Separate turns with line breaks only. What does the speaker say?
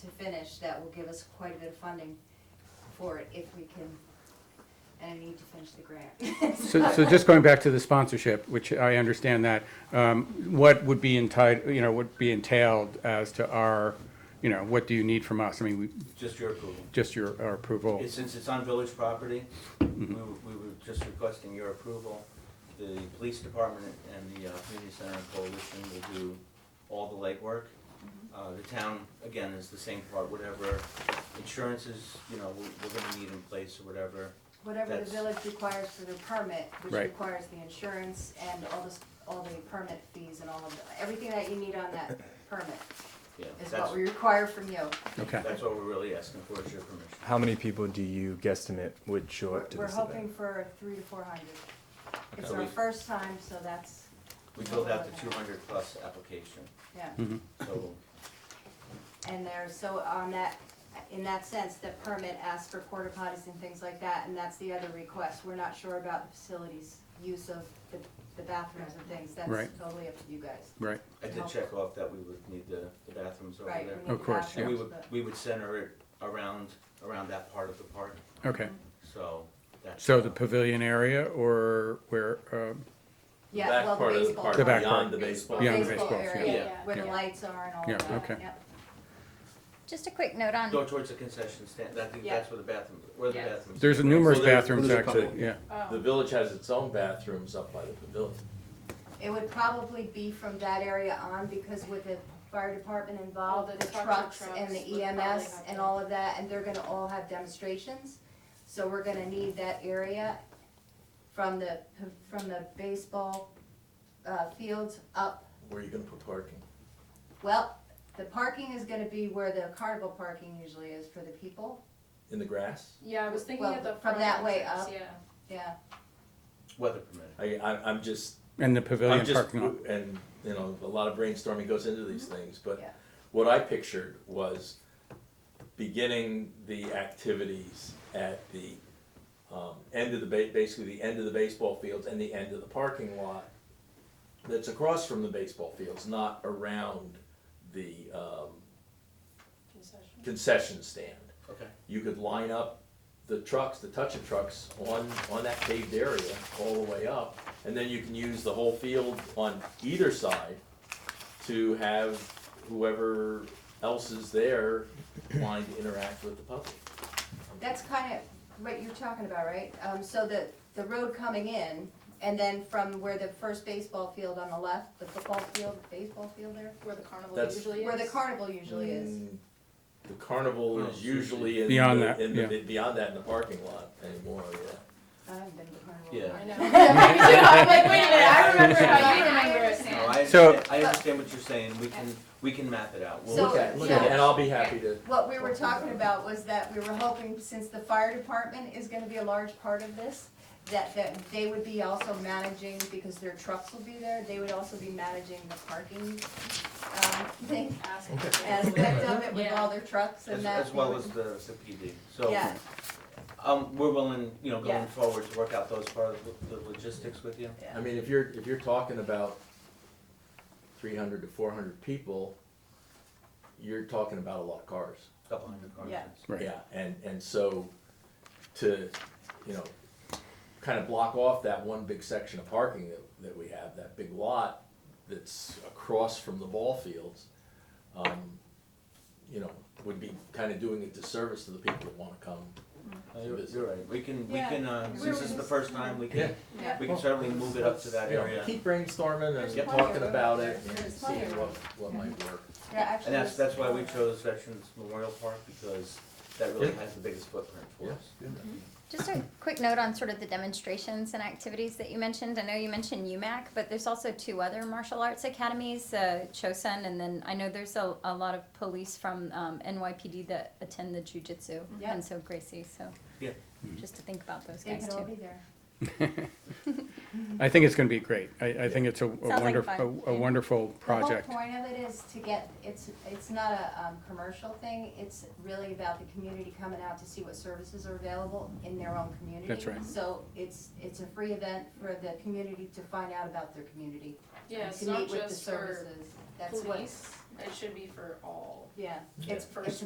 to finish, that will give us quite a bit of funding for it if we can, and I need to finish the grant.
So, so just going back to the sponsorship, which I understand that, um, what would be entitled, you know, would be entailed as to our, you know, what do you need from us? I mean, we,
Just your approval.
just your, our approval.
It- Since it's on village property, we were, we were just requesting your approval. The police department and the uh, community center and coalition will do all the legwork.
Mm-hmm.
Uh, the town, again, is the same part, whatever insurances, you know, we're, we're gonna need in place or whatever.
Whatever the
That's-
village requires for their permit, which
Right.
requires the insurance and all this, all the permit fees and all of, the- everything that you need on that permit
Yeah,
is
that's,
what we require from you.
Okay.
that's what we're really asking for, is your permission.
How many people do you guesstimate would show
We're
up to
we're
this
hoping
event?
for three to four hundred. It's
Okay.
our first time, so that's,
We filled out the two hundred plus application,
yeah.
so
And there's, so on that, in that sense, the permit asks for porta potties and things like that, and that's the other request. We're not sure about the facilities, use of the, the bathrooms and things, that's
Right.
totally up to you guys.
Right,
I did check off that we would need the, the bathrooms over there.
Right, we need
Of course,
the
And we
bathrooms,
would, we would center it around, around that part of the park,
okay.
so that's.
So the pavilion area or where, um,
but- Yeah, well, the baseball.
The
court,
back part.
Beyond the baseball.
Beyond the
Baseball
baseball, yeah.
Yeah.
area,
Yeah.
where the
Yeah.
lights are and all
Yeah,
of that,
okay.
yep.
Just a quick note on,
Go towards the concession stand, I think
Yeah.
that's where the bathroom, where the
Yeah.
bathrooms.
there's
Right.
numerous
So there's-
bathrooms
there's a couple.
actually, yeah.
Oh.
The village has its own bathrooms up by the pavilion.
It would probably be from that area on, because with the fire department
All
involved,
Oh, the
the
trucks
trucks
and
and
trucks
the
would probably
EMS
have
and
to-
all of that, and they're gonna all have demonstrations. So we're gonna need that area from the, from the baseball, uh, fields up.
Where are you gonna put parking?
Well, the parking is gonna be where the carnival parking usually is for the people,
In the grass?
Yeah, I was thinking
Well,
of the
from
front
that way
entrance,
up.
Yeah.
yeah.
Weather permitting.
I, I, I'm just,
And the
I'm
pavilion
just,
parking lot.
and, you know, a lot of brainstorming goes into these things, but
Mm-hmm. Yeah.
what I pictured was beginning the activities at the, um, end of the ba- basically the end of the baseball fields and the end of the parking lot that's across from the baseball fields, not around the, um,
Concession.
concession stand.
Okay.
you could line up the trucks, the touch of trucks, on, on that paved area all the way up, and then you can use the whole field on either side to have whoever else is there wanting to interact with the public.
That's kind of what you're talking about, right? Um, so the, the road coming in, and then from where the first baseball field on the left, the football field, baseball field there,
Where the carnival
That's-
usually is.
where the carnival usually is.
Mm, The carnival
Oh,
is usually in
Beyond
the,
that,
in the,
yeah.
beyond that in the parking lot anymore, yeah.
I haven't been to carnival.
Yeah.
I know. Me too, I'm like, wait a minute, I remember it, I remember it.
No, I
So-
understand, I understand what you're saying, we can, we can map it out. We'll
So-
look
Look
at-
at, it, look at, it, and I'll be happy to,
What we were talking about was that we were hoping, since the fire department is gonna be a large part of this, that, that they would be also managing, because their trucks will be there, they would also be managing the parking, um, thing,
Ask
aspect of it with all their trucks
As,
and that.
as well
they
as
would-
the, the PD, so.
Yeah.
Um, we're willing, you know,
Yeah.
going forward to work out those part of the- the logistics with you.
I mean, if you're, if you're talking about three hundred to four hundred people, you're talking about a lot of cars.
Couple hundred cars.
Yeah.
Right.
Yeah, and, and so to, you know, kind of block off that one big section of parking that, that we have, that big lot that's across from the ball fields, um, you know, would be kind of doing a disservice to the people that wanna come.
Uh, You're, you're right, we can, we
Yeah.
can, uh, since this is the first time, we can,
Yeah.
we can certainly move it up to that
You know,
area.
Keep brainstorming
There's
and
plenty of
talking
room.
about it and
There's plenty of
seeing what, what might work.
They're actually-
And that's, that's why we chose Veterans Memorial Park, because that really has the biggest footprint for us.
Mm-hmm.
just a quick note on sort of the demonstrations and activities that you mentioned. I know you mentioned UMAC, but there's also two other martial arts academies, uh, Chosun, and then I know there's a, a lot of police from um, NYPD that attend the jujitsu,
Yeah.
and so Gracie, so.
Yeah.
Just to think about those
Mm-hmm. They
guys
can all
too.
be there.
I think it's gonna be great. I, I think it's a
like
wonderful, a
fun.
wonderful project.
The whole point of it is to get, it's, it's not a, um, commercial thing, it's really about the community coming out to see what services are available in their own community.
That's right.
So it's, it's a free event for the community to find out about their community.
Yeah,
and
it's not
To meet with the
just for
services, that's what,
police, it should be for all.
yeah, it's,
For
it's a